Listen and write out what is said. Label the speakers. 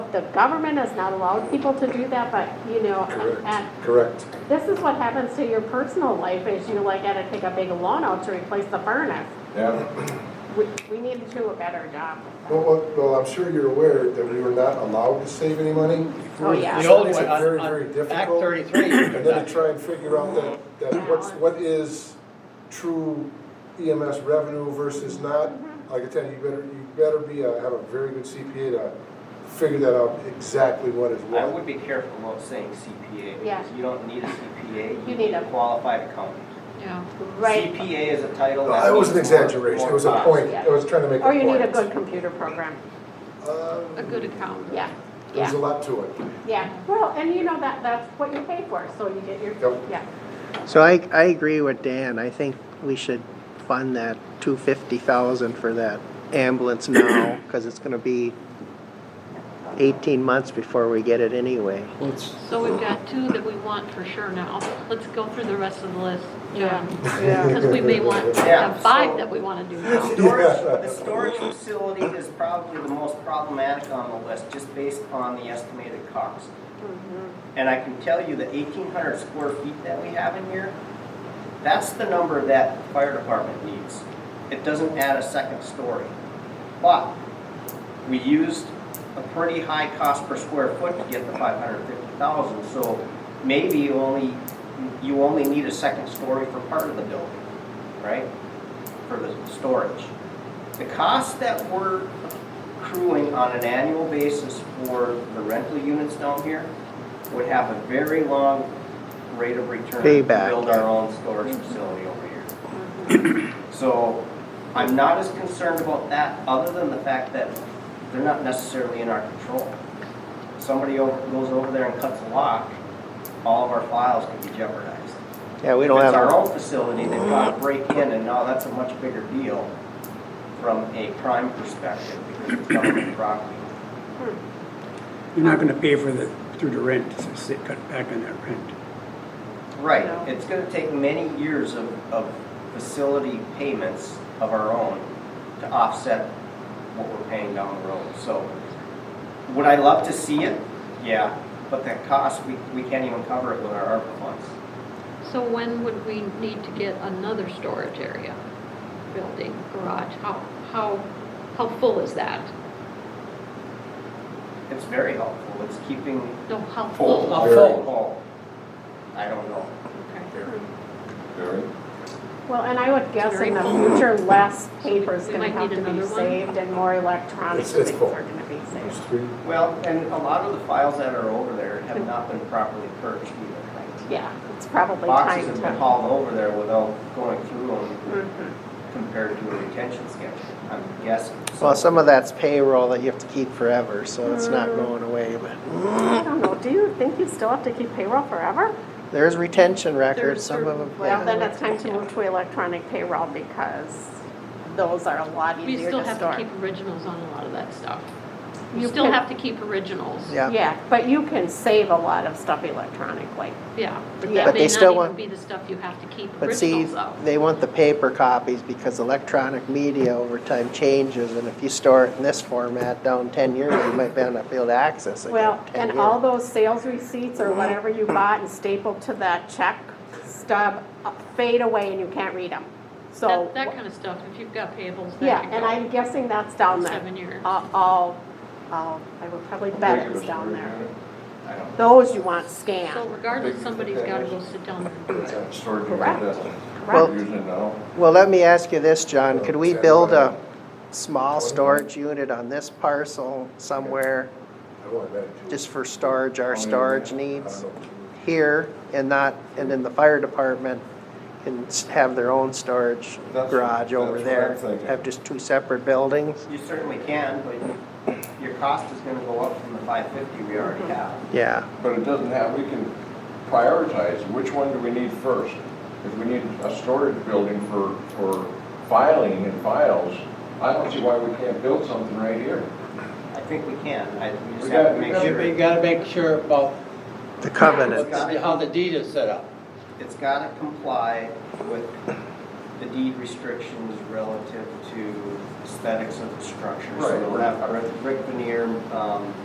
Speaker 1: the government has not allowed people to do that, but, you know, at,
Speaker 2: Correct, correct.
Speaker 1: this is what happens to your personal life, is you like gotta take a big loan out to replace the furnace.
Speaker 3: Yeah,
Speaker 1: We, we need to do a better job. with that.
Speaker 2: Well, Well, well, I'm sure you're aware that we were not allowed to save any money.
Speaker 1: Oh, yeah.
Speaker 4: The
Speaker 2: It's
Speaker 4: old one,
Speaker 2: very,
Speaker 4: on,
Speaker 2: very
Speaker 4: on Act
Speaker 2: difficult.
Speaker 4: thirty-three.
Speaker 2: And then to try and figure out that, that what's, what is true EMS revenue versus not.
Speaker 1: Mm-hmm.
Speaker 2: Like I tell you, you better, you better be, a- have a very good CPA to figure that out exactly what is
Speaker 5: I would
Speaker 2: what.
Speaker 5: be careful about saying CPA,
Speaker 1: Yeah.
Speaker 5: because you don't need a CPA.
Speaker 1: You need a-
Speaker 5: Qualified accountant.
Speaker 6: Yeah.
Speaker 1: Right,
Speaker 5: CPA is a title that.
Speaker 2: It was an
Speaker 5: means more-
Speaker 2: exaggeration, it
Speaker 5: more
Speaker 2: was a
Speaker 5: cost.
Speaker 2: point, I was trying to make a
Speaker 1: or
Speaker 2: point.
Speaker 1: Oh, you need a good computer program,
Speaker 2: Um,
Speaker 6: A good account.
Speaker 1: yeah,
Speaker 2: There's a
Speaker 1: yeah,
Speaker 2: lot to it.
Speaker 1: yeah. Well, and you know, that, that's what you pay for, so you get your,
Speaker 2: Yep.
Speaker 1: yeah.
Speaker 7: So I, I agree with Dan. I think we should fund that two fifty thousand for that ambulance now, cause it's gonna be eighteen months before we get it anyway.
Speaker 6: So we've got two that we want for sure now. Let's go through the rest of the list, John.
Speaker 1: Yeah.
Speaker 6: Because we may want to
Speaker 5: Yeah,
Speaker 6: have five
Speaker 5: so-
Speaker 6: that we want to do
Speaker 5: The
Speaker 6: now.
Speaker 5: storage,
Speaker 2: Yeah.
Speaker 5: the storage facility is probably the most problematic on the list, just based on the estimated cost. And I can tell you that eighteen hundred square feet that we have in here, that's the number that the fire department needs. It doesn't add a second story. But we used a pretty high cost per square foot to get the five hundred fifty thousand, so maybe you only, you only need a second story for part of the building, right? For the storage. The cost that we're accruing on an annual basis for the rental units down here would have a very long rate of return. to
Speaker 7: Payback.
Speaker 5: Build our own storage facility over here. So I'm not as concerned about that, other than the fact that they're not necessarily in our control. Somebody over- goes over there and cuts a lock, all of our files could be jeopardized.
Speaker 7: Yeah, we don't
Speaker 5: If it's our
Speaker 7: have,
Speaker 5: own facility, they've got to break in, and now that's a much bigger deal from a crime perspective, because it's government property.
Speaker 8: You're not gonna pay for the, through the rent, so they cut back on that rent.
Speaker 5: Right,
Speaker 1: No.
Speaker 5: it's gonna take many years of, of facility payments of our own to offset what we're paying down the road, so. Would I love to see it? Yeah, but that cost, we, we can't even cover it with our ARPA funds.
Speaker 6: So when would we need to get another storage area, building, garage? How, how, how full is that?
Speaker 5: It's very helpful, it's keeping.
Speaker 6: No, how
Speaker 5: full.
Speaker 6: full?
Speaker 4: How full?
Speaker 5: Full. I don't know.
Speaker 6: Okay.
Speaker 3: very.
Speaker 1: Well, and I would guess
Speaker 6: Very
Speaker 1: in the
Speaker 6: full.
Speaker 1: future, less paper's
Speaker 6: We
Speaker 1: gonna
Speaker 6: might
Speaker 1: have
Speaker 6: need
Speaker 1: to be
Speaker 6: another one.
Speaker 1: saved and more electronic
Speaker 2: It's- it's
Speaker 1: things
Speaker 2: full.
Speaker 1: are gonna be
Speaker 2: There's
Speaker 1: saved.
Speaker 2: three-
Speaker 5: Well, and a lot of the files that are over there have not been properly purged either.
Speaker 1: Yeah, it's probably time
Speaker 5: Boxes have been
Speaker 1: to.
Speaker 5: hauled over there without going through them
Speaker 1: Mhm.
Speaker 5: compared to a retention schedule, I'm guessing.
Speaker 7: well, some of that's payroll that you have to keep forever, so it's
Speaker 1: Mm.
Speaker 7: not going away, but
Speaker 1: I don't know, do you think you still have to keep payroll forever?
Speaker 7: there's retention records,
Speaker 6: There's
Speaker 7: some of them.
Speaker 1: Well, then it's time to move to electronic payroll because those are a lot
Speaker 6: We
Speaker 1: easier
Speaker 6: still
Speaker 1: to
Speaker 6: have to
Speaker 1: store.
Speaker 6: keep originals on a lot of that stuff.
Speaker 1: You
Speaker 6: You still
Speaker 1: can-
Speaker 6: have to keep originals.
Speaker 7: Yeah,
Speaker 1: Yeah, but you can save a lot of stuff electronically.
Speaker 6: Yeah, but
Speaker 1: Yeah.
Speaker 6: that
Speaker 1: But
Speaker 7: they
Speaker 6: may
Speaker 7: still
Speaker 6: not even
Speaker 7: want-
Speaker 6: be the stuff you have to keep
Speaker 7: but see,
Speaker 6: originals of.
Speaker 7: they want the paper copies because electronic media over time changes, and if you store it in this format down ten years, you might not be able to access it. in
Speaker 1: Well,
Speaker 7: 10
Speaker 1: and
Speaker 7: years.
Speaker 1: all those sales receipts or whatever you bought and stapled to that check stub uh, fade away and you can't read them. So,
Speaker 6: That, that kind of stuff, if you've got payables,
Speaker 1: yeah,
Speaker 6: that could
Speaker 1: and I'm
Speaker 6: go
Speaker 1: guessing that's down there.
Speaker 6: seven years.
Speaker 1: Uh, All, all, I would probably bet it's down there.
Speaker 5: I don't know.
Speaker 1: Those you want
Speaker 6: So
Speaker 1: scanned,
Speaker 6: regardless, somebody's gotta go sit down and do it.
Speaker 3: Storage unit,
Speaker 1: Correct.
Speaker 3: that's-
Speaker 1: Correct.
Speaker 3: we're Using it now.
Speaker 7: Well, let me ask you this, John, could we
Speaker 2: Okay.
Speaker 7: build a small storage unit on this parcel somewhere
Speaker 2: I want that too.
Speaker 7: just for storage, our storage needs
Speaker 2: I don't know.
Speaker 7: here and not, and then the fire department can s- have their own storage
Speaker 3: That's-
Speaker 7: garage over
Speaker 3: that's what
Speaker 7: there?
Speaker 3: I'm thinking.
Speaker 7: Have just two separate buildings?
Speaker 5: You certainly can, but your cost is gonna go up from the five fifty we already
Speaker 1: Mm-hmm.
Speaker 5: have.
Speaker 7: Yeah,
Speaker 3: But it doesn't have, we can prioritize, which one do we need first? If we need a storage building for, for filing and files, I don't see why we can't build something right here.
Speaker 5: I think we can, I, we
Speaker 3: We
Speaker 5: just
Speaker 3: got-
Speaker 5: have to
Speaker 3: we
Speaker 5: make
Speaker 3: got-
Speaker 4: Yeah, but you
Speaker 5: sure.
Speaker 4: gotta make sure about
Speaker 7: the
Speaker 4: what
Speaker 7: covenant.
Speaker 4: the- how the deed is set up.
Speaker 5: It's gotta comply with the deed restrictions relative to aesthetics of the structure. So
Speaker 3: Right.
Speaker 5: we'll have brick veneer, um,